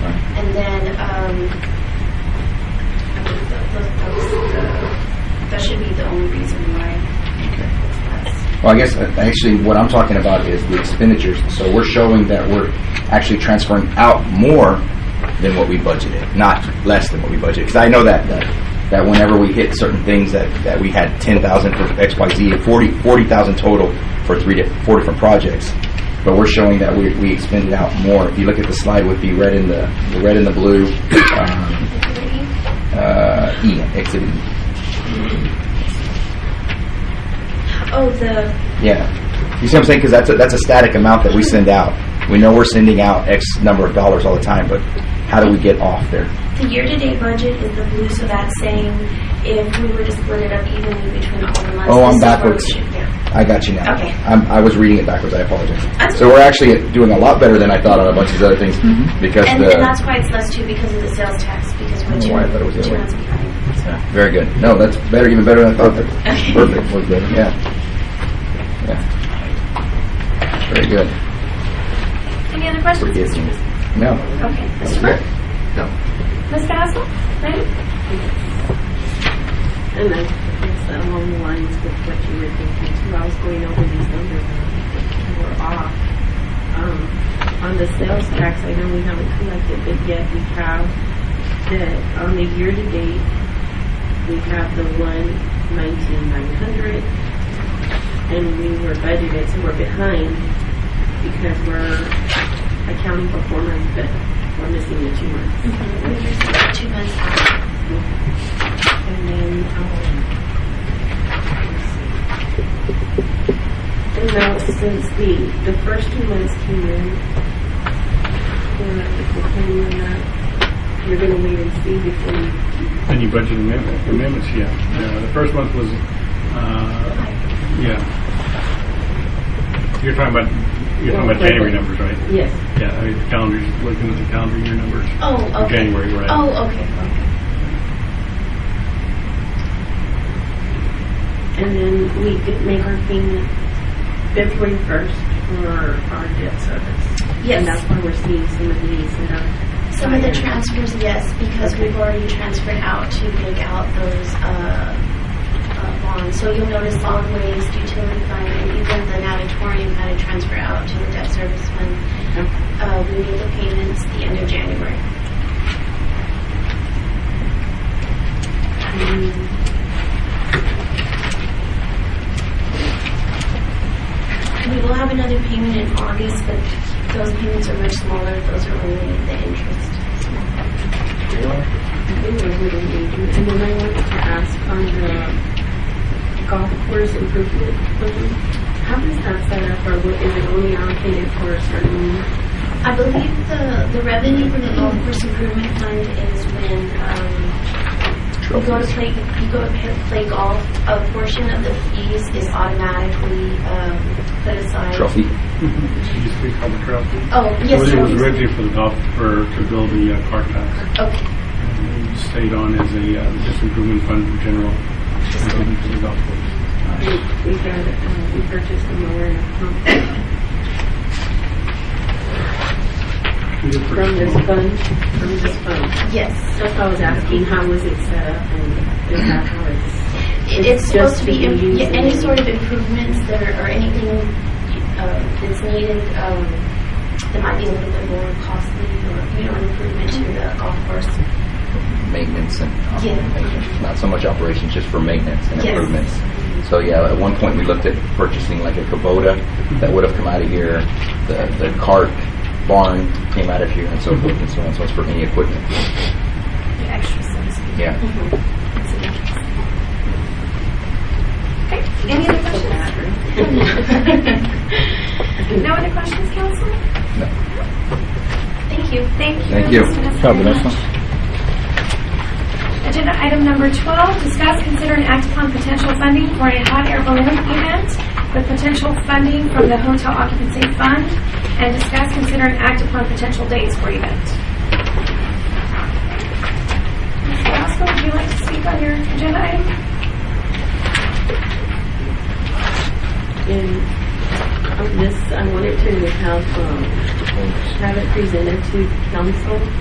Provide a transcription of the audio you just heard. And then, um, I believe that, that- that was the, that should be the only reason why Okay. that's, Well, I guess uh, actually what I'm talking about is the expenditures. So we're showing that we're actually transferring out more than what we budgeted, not less than what we budgeted. Because I know that, that that whenever we hit certain things, that, that we had 10,000 for X, Y, Z, and 40 40,000 total for three di- four different projects. But we're showing that we, we expended out more. If you look at the slide with the red and the, the red and the blue, um, uh, E, exhibit E. oh, the, Yeah. You see what I'm saying? Because that's a, that's a static amount that we send out. We know we're sending out X number of dollars all the time, but how do we get off there? the year-to-date budget is the blue, so that's saying if we were to split it up evenly between all the months. Oh, this is where I'm we backwards. should- Yeah. I got you now. Okay. I'm, I was reading it backwards. I apologize. That's- So we're actually doing a lot better than I thought on a bunch of these other things because Mm-hmm. And, the and that's why it's less too, because of the sales tax, because I we're don't two, know why Oh, I thought it was the other two way. months behind. so. Yeah, very good. No, that's better, even better than I thought. That's Okay. perfect. Was better. Yeah. Yeah. Very good. Any other questions? Forgive Mr. me. Ms- No. Okay, that's Mr. good. Burke, No. Ms. Basil, ready? And I guess along the lines with what you were thinking too, I was going over these numbers that were off. Um, on the sales tax, I know we haven't collected, but yet we have that on the year to date, we have the one nineteen nine hundred. And we were budgeted, so we're behind because we're accounting for four months, but we're missing the two months. We're just two months out. And then, um, and now since the, the first two months came in, we're not, if we're planning on that, you're gonna wait and see before you. Any budget amendment- amendments, yeah. Uh, The first month was, uh, yeah. You're talking about, you're talking about January numbers, right? Yes. Yeah, I mean, the calendar, looking at the calendar year numbers. Oh, for okay. January, right? Oh, okay, okay. And then we could make our payment February first for our debt service. And that's Yes, why we're seeing some of these that are. some of the transfers, yes, because we've already transferred out to take out those, uh, uh, bonds. So you'll notice solid waste, utility fund, and even the natatorium had a transfer out to the debt service fund. Uh, we made the payments the end of January. Um, We will have another payment in August, but those payments are much smaller. Those are only the interest. Anyway, we don't need to. And then I wanted to ask on the golf course improvement plan, how is that set up, or what- is it only allocated for a certain? I believe the, the revenue from the golf course improvement fund is when, um, you go to play, you go to pay- play golf, a portion of the fees is automatically, um, put aside. Trophy. It used to be called the trail. Oh, yes, It was trophies. originally for the golf, for, to build the uh, cart path. Okay, And it Stayed on as a uh, just improvement fund for general improvement for the golf course. We we got, uh, we purchased a mower and a pump We did from purchase this one. fund, from this fund. yes. That's why I was asking, how was it set up, and is that how it's? It- It's It's supposed just to be, to im- be yeah, used any in- sort of improvements that are, or anything, uh, that's needed, um, that might be a little bit more costly or, you know, an improvement to the golf course. maintenance and Yeah. operations, not so much operations, just for maintenance and Yes. improvements. So yeah, at one point we looked at purchasing like a Kubota that would have come out of here, the, the cart barn came out of here and so forth and so on, so it's for any equipment. The extra sense. Yeah. Okay, any other questions? No other questions, council? No. Thank you. Thank you. Thank you. Mr. Vanessa, very much. Agenda item number 12, discuss, consider, and act upon potential funding for a hot air balloon event with potential funding from the hotel occupancy fund, and discuss, consider, and act upon potential dates for event. Ms. Velasco, would you like to speak on your agenda item? And on this, I wanted to have, um, have it presented to council,